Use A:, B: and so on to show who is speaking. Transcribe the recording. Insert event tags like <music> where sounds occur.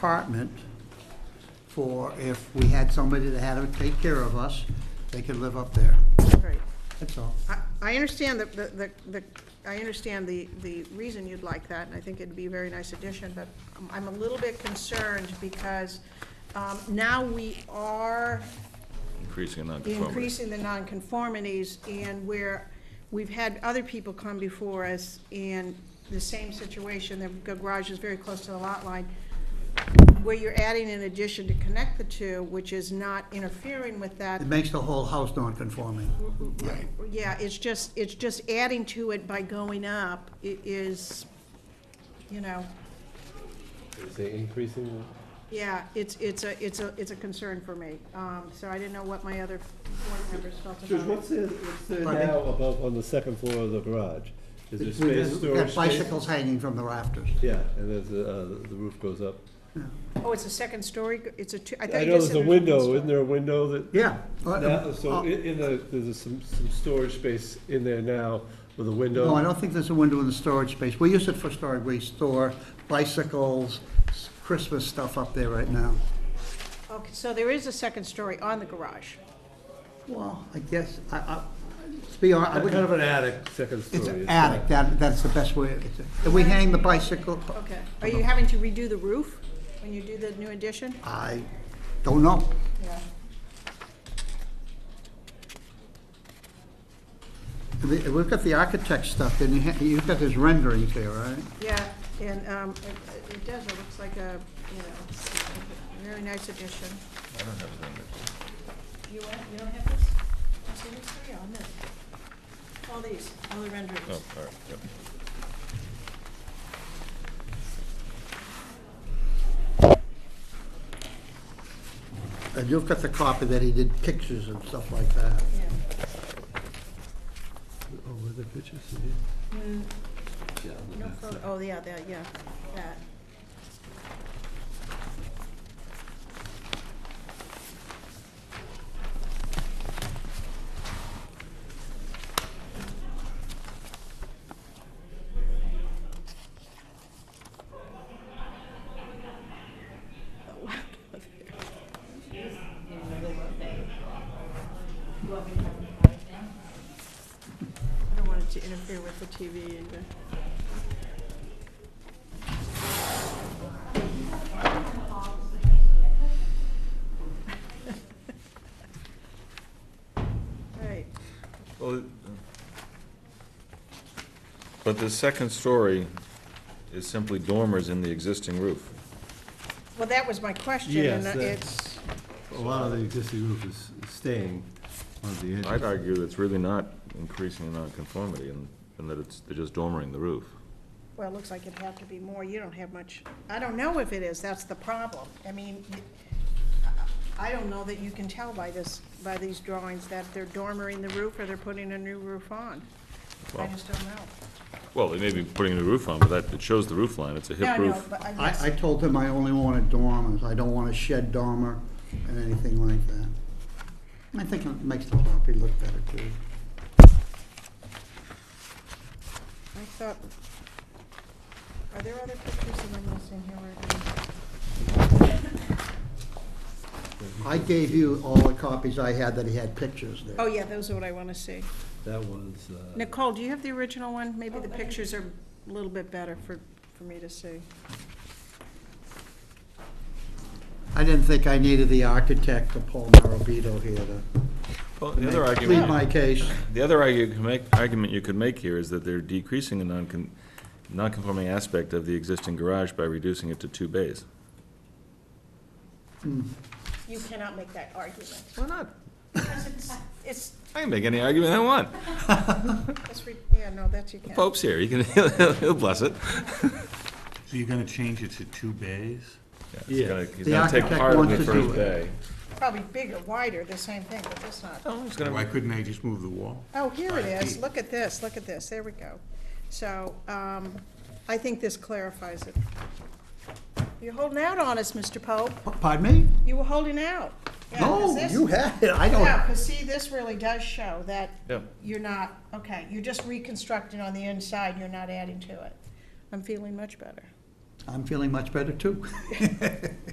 A: apartment for if we had somebody that had to take care of us, they could live up there.
B: Right.
A: That's all.
B: I- I understand the, the, the- the, I understand the, the reason you'd like that, and I think it'd be a very nice addition, but I'm- I'm a little bit concerned because um, now we are
C: Increasing non-conformity.
B: increasing the nonconformities, and where we've had other people come before us in the same situation, their garage is very close to the lot line, where you're adding an addition to connect the two, which is not interfering with that,
A: It makes the whole house non-conforming.
B: Yeah, it's just, it's just adding to it by going up i- is, you know,
D: Is it increasing?
B: yeah, it's, it's a, it's a, it's a concern for me. Um, so I didn't know what my other board members felt
D: George,
B: about
D: what's
B: it.
D: there, what's there
A: Pardon me?
D: now above, on the second floor of the garage? Is there
A: We've
D: space,
A: got- we've
D: storage
A: got
D: space?
A: Bicycles hanging from the rafters.
D: Yeah, and there's, a- uh, the roof goes up.
B: Oh, it's a second story, g- it's a two, I thought
D: I
B: you
D: know
B: just said.
D: there's a
B: there's
D: window,
B: one
D: isn't there a window that?
A: Yeah.
D: Now- So
A: Uh,
D: i- in the, there's a some, some storage space in there now with a window?
A: No, I don't think there's a window in the storage space. We use it for storage. We store bicycles, s- Christmas stuff up there right now.
B: story. Okay, so there is a second story on the garage.
A: Well, I guess, I, I, to be honest, I
D: Kind
A: wouldn't,
D: of an attic, second story.
A: it's an
D: not-
A: attic. That, that's the best way. it's a- And we hang the bicycle.
B: Okay. Are you having to redo the roof when you do the new addition?
A: I don't know.
B: Yeah.
A: The- We've got the architect stuff, then you ha- you've got his renderings there, right?
B: Yeah, and, um, it- it, it does, it looks like a, you know, very nice addition.
C: I don't have a number.
B: You want, you don't have this? Oh, see, these three on this. All these, all the renderings.
C: Oh, all right, yep.
A: And you've got the copy that he did pictures and stuff like that.
B: Yeah.
D: Oh, were there pictures
B: Mm,
D: here?
B: No photo, oh, yeah, that, yeah, that. <laughs> Oh, wow. I don't want it to interfere with the TV and the. Right,
C: Well, it- uh, But the second story is simply dormers in the existing roof.
B: well, that was my question,
D: Yes,
B: and
D: that-
B: it's,
D: A lot of the existing roof is staying on the edges.
C: I'd argue that's really not increasing the nonconformity and, and that it's, they're just dormering the roof.
B: well, it looks like it'd have to be more, you don't have much, I don't know if it is, that's the problem. I mean, I don't know that you can tell by this, by these drawings that they're dormering the roof or they're putting a new roof on. I
C: Well-
B: just don't know.
C: Well, they may be putting a roof on, but that, it shows the roof line, it's a
B: No,
C: hip
B: no,
C: roof.
B: but I guess.
A: I, I told him I only wanted dormers, I don't want a shed dormer and anything like that. I think it makes the property look better too.
B: I thought, are there other pictures that I'm missing here? Where-
A: I gave you all the copies I had that he had pictures
B: Oh,
A: there.
B: yeah, those are what I want to see.
D: That was, uh.
B: Nicole, do you have the original one? Maybe the pictures are a little bit better for, for me to see.
A: I didn't think I needed the architect to Paul Marabito here to
C: Well, the other
A: plead my
C: argument,
A: case.
C: the other argu- you can make- argument you could make here is that they're decreasing the non non-conforming aspect of the existing garage by reducing it to two bays.
B: You cannot make that argument.
C: Why not?
B: Because <laughs> it's, it's,
C: I can make any argument I want.
B: it's re- yeah, no, that you can't.
C: Pope's here, he can, <laughs> he'll, he'll bless it.
E: So you're gonna change it to two bays?
C: He's
D: Yeah.
C: gonna, he's
A: The
C: gonna take
A: architect
C: part of
A: wants
C: the
A: to do
C: first
A: it.
C: bay.
B: Probably bigger, wider, the same thing, but it's not.
C: Oh, he's
E: Why
C: gonna,
E: couldn't they just move the wall?
B: Oh, here it
E: Five
B: is.
E: feet.
B: Look at this, look at this. There we go. So, um, I think this clarifies it. You're holding out on us, Mr. Pope.
A: Pardon me?
B: You were holding out. Yeah,
A: No,
B: 'cause this-
A: you had it, I
B: Yeah,
A: don't,
B: because see, this really does show that
C: Yeah.
B: you're not, okay, you're just reconstructing on the inside, you're not adding to it. I'm feeling much better.
A: I'm feeling much better too. <laughs>